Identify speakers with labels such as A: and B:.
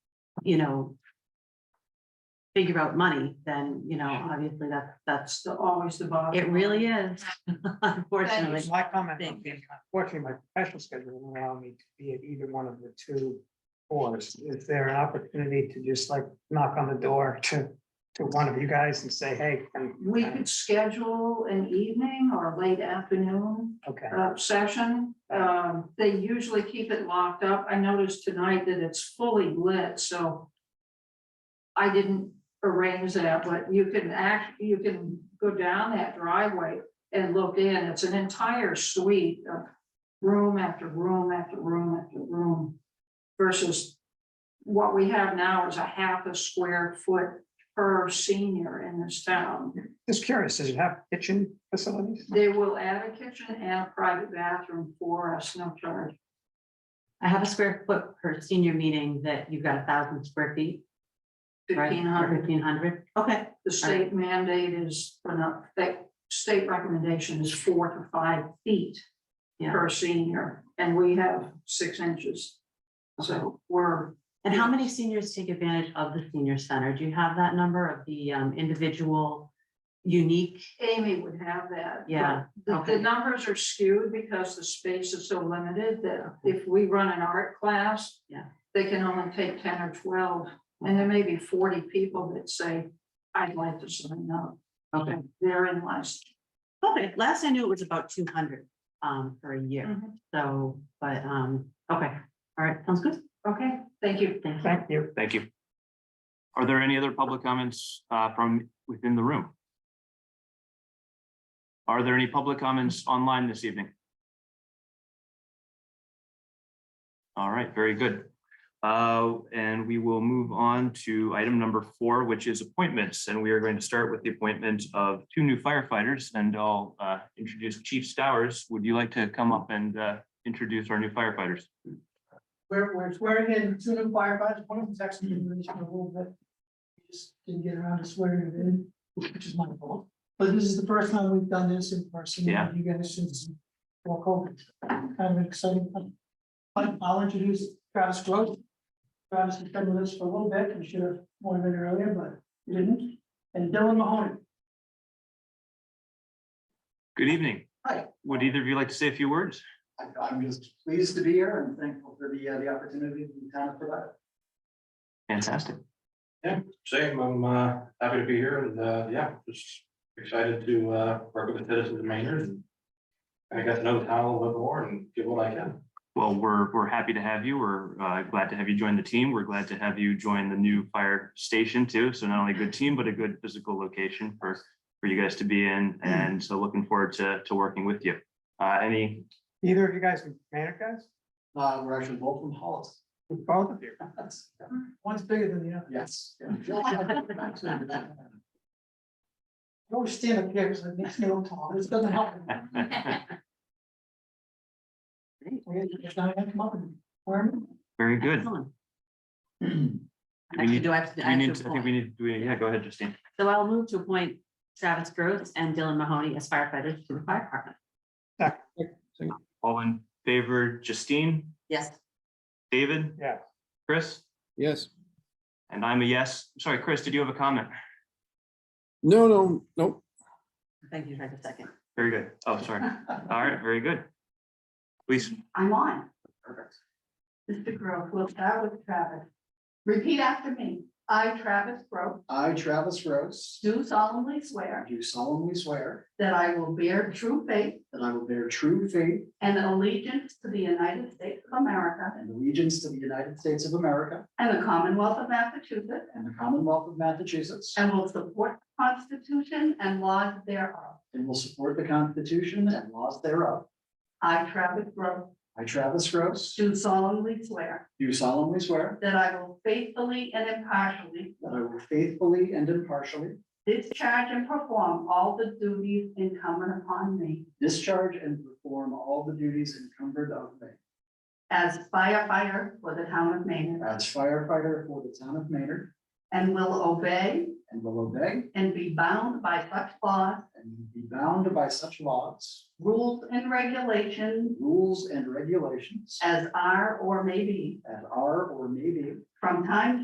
A: you know, figure out money, then, you know, obviously that, that's,
B: the, always the bottom.
A: it really is,
C: Just
A: unfortunately.
C: My comment,
A: Thank
C: would be, unfortunately, my professional schedule won't allow me to be at either one of the two boards. Is there an opportunity to just like knock on the door to, to one of you guys and say, hey? can-
B: We could schedule an evening or late afternoon
C: Okay,
B: uh, session. Um, They usually keep it locked up. I noticed tonight that it's fully lit, so I didn't arrange that, but you can act, you can go down that driveway and look in. It's an entire suite of room after room after room after room versus what we have now is a half a square foot per senior in this town.
C: just curious, does it have kitchen facilities?
B: They will add a kitchen and a private bathroom for us, no charge.
A: I have a square foot per senior meeting that you've got a thousand square feet, right?
B: Fifteen hundred,
A: Fifteen hundred, okay,
B: the state mandate is, or not, that state recommendation is four to five feet
A: Yeah.
B: per senior, and we have six inches. So we're,
A: and how many seniors take advantage of the senior center? Do you have that number of the um, individual unique?
B: Amy would have that. but
A: Yeah,
B: The, the
A: okay.
B: numbers are skewed because the space is so limited that if we run an art class.
A: Yeah.
B: They can only take ten or twelve, and there may be forty people that say, I'd like to sign up,
A: Okay,
B: therein lies.
A: okay, last I knew it was about two hundred um, for a
B: Mm.
A: year,
D: Mm-hmm.
A: so, but, um, okay, all right, sounds good,
B: Okay, thank you.
A: thank you.
C: Thank you.
E: Thank you. Are there any other public comments uh, from within the room? Are there any public comments online this evening? All right, very good. Uh, And we will move on to item number four, which is appointments. And we are going to start with the appointment of two new firefighters. And I'll uh, introduce Chief Stowers. Would you like to come up and uh, introduce our new firefighters?
F: We're, we're swearing in two new firefighters, one of them's actually been released in a little bit. We Just didn't get around to swearing him in, which is my fault, but this is the first time we've done this in person. with
E: Yeah.
F: You guys since before COVID, kind of an exciting. one. But I'll introduce Travis Gross. Travis has been with us for a little bit, we should have warned him earlier, but we didn't, and Dylan Mahoney.
E: Good evening.
G: Hi.
E: Would either of you like to say a few words?
G: I- I'm just pleased to be here and thankful for the, uh, the opportunity to be kind of provided.
E: Fantastic.
H: Same, I'm uh happy to be here and uh yeah, just excited to uh work with the citizens of Maynard. and I got to know the town a little bit more and give what I can.
E: Well, we're, we're happy to have you. We're uh, glad to have you join the team. We're glad to have you join the new fire station too. So not only a
A: Mm.
E: good team, but a good physical location for, for you guys to be in.
A: Mm.
E: And so looking forward to, to working with you. Uh, Any,
C: Either of you guys are Manor guys?
G: Uh, we're actually both from Hollis.
C: Both of you?
F: One's bigger than the other.
G: Yes.
F: You always stand up here, because it makes me look tall, this doesn't help. We just not have to come up and warm. him.
E: very good.
A: Excellent.
E: Do we
A: Actually,
E: need,
A: do I have to?
E: do
A: I have
E: we
A: to
E: need, to- I
A: appoint?
E: think we need, do we- yeah, go ahead, Justine.
A: So I'll move to appoint Travis Gross and Dylan Mahoney as firefighters to the fire department.
E: All in favor, Justine,
A: Yes.
E: David,
C: Yeah.
E: Chris?
I: Yes.
E: And I'm a yes. Sorry, Chris, did you have a comment?
I: No, no, no.
A: Thank you for the second.
E: Very good. Oh, sorry. All right, very good. Please.
D: I'm on.
G: Perfect.
D: Mr. Grove, we'll start with Travis. Repeat after me. I, Travis Grove,
G: I, Travis Rose,
D: do solemnly swear
G: do solemnly swear
D: that I will bear true faith
G: that I will bear true faith
D: and allegiance to the United States of America
G: and allegiance to the United States of America
D: and the Commonwealth of Massachusetts,
G: and the Commonwealth of Massachusetts,
D: and will support the Constitution and laws thereof.
G: and will support the Constitution and laws thereof.
D: I, Travis Grove,
G: I, Travis Rose,
D: do solemnly swear
G: do solemnly swear
D: that I will faithfully and impartially
G: that I will faithfully and impartially
D: discharge and perform all the duties incumbent upon me
G: discharge and perform all the duties incumbent on me
D: as firefighter for the town of Maynard,
G: as firefighter for the town of Maynard
D: and will obey
G: And will obey
D: and be bound by such laws,
G: and be bound by such laws,
D: rules, and regulations
G: rules, and regulations
D: as are or may be
G: as are or may be
D: from time to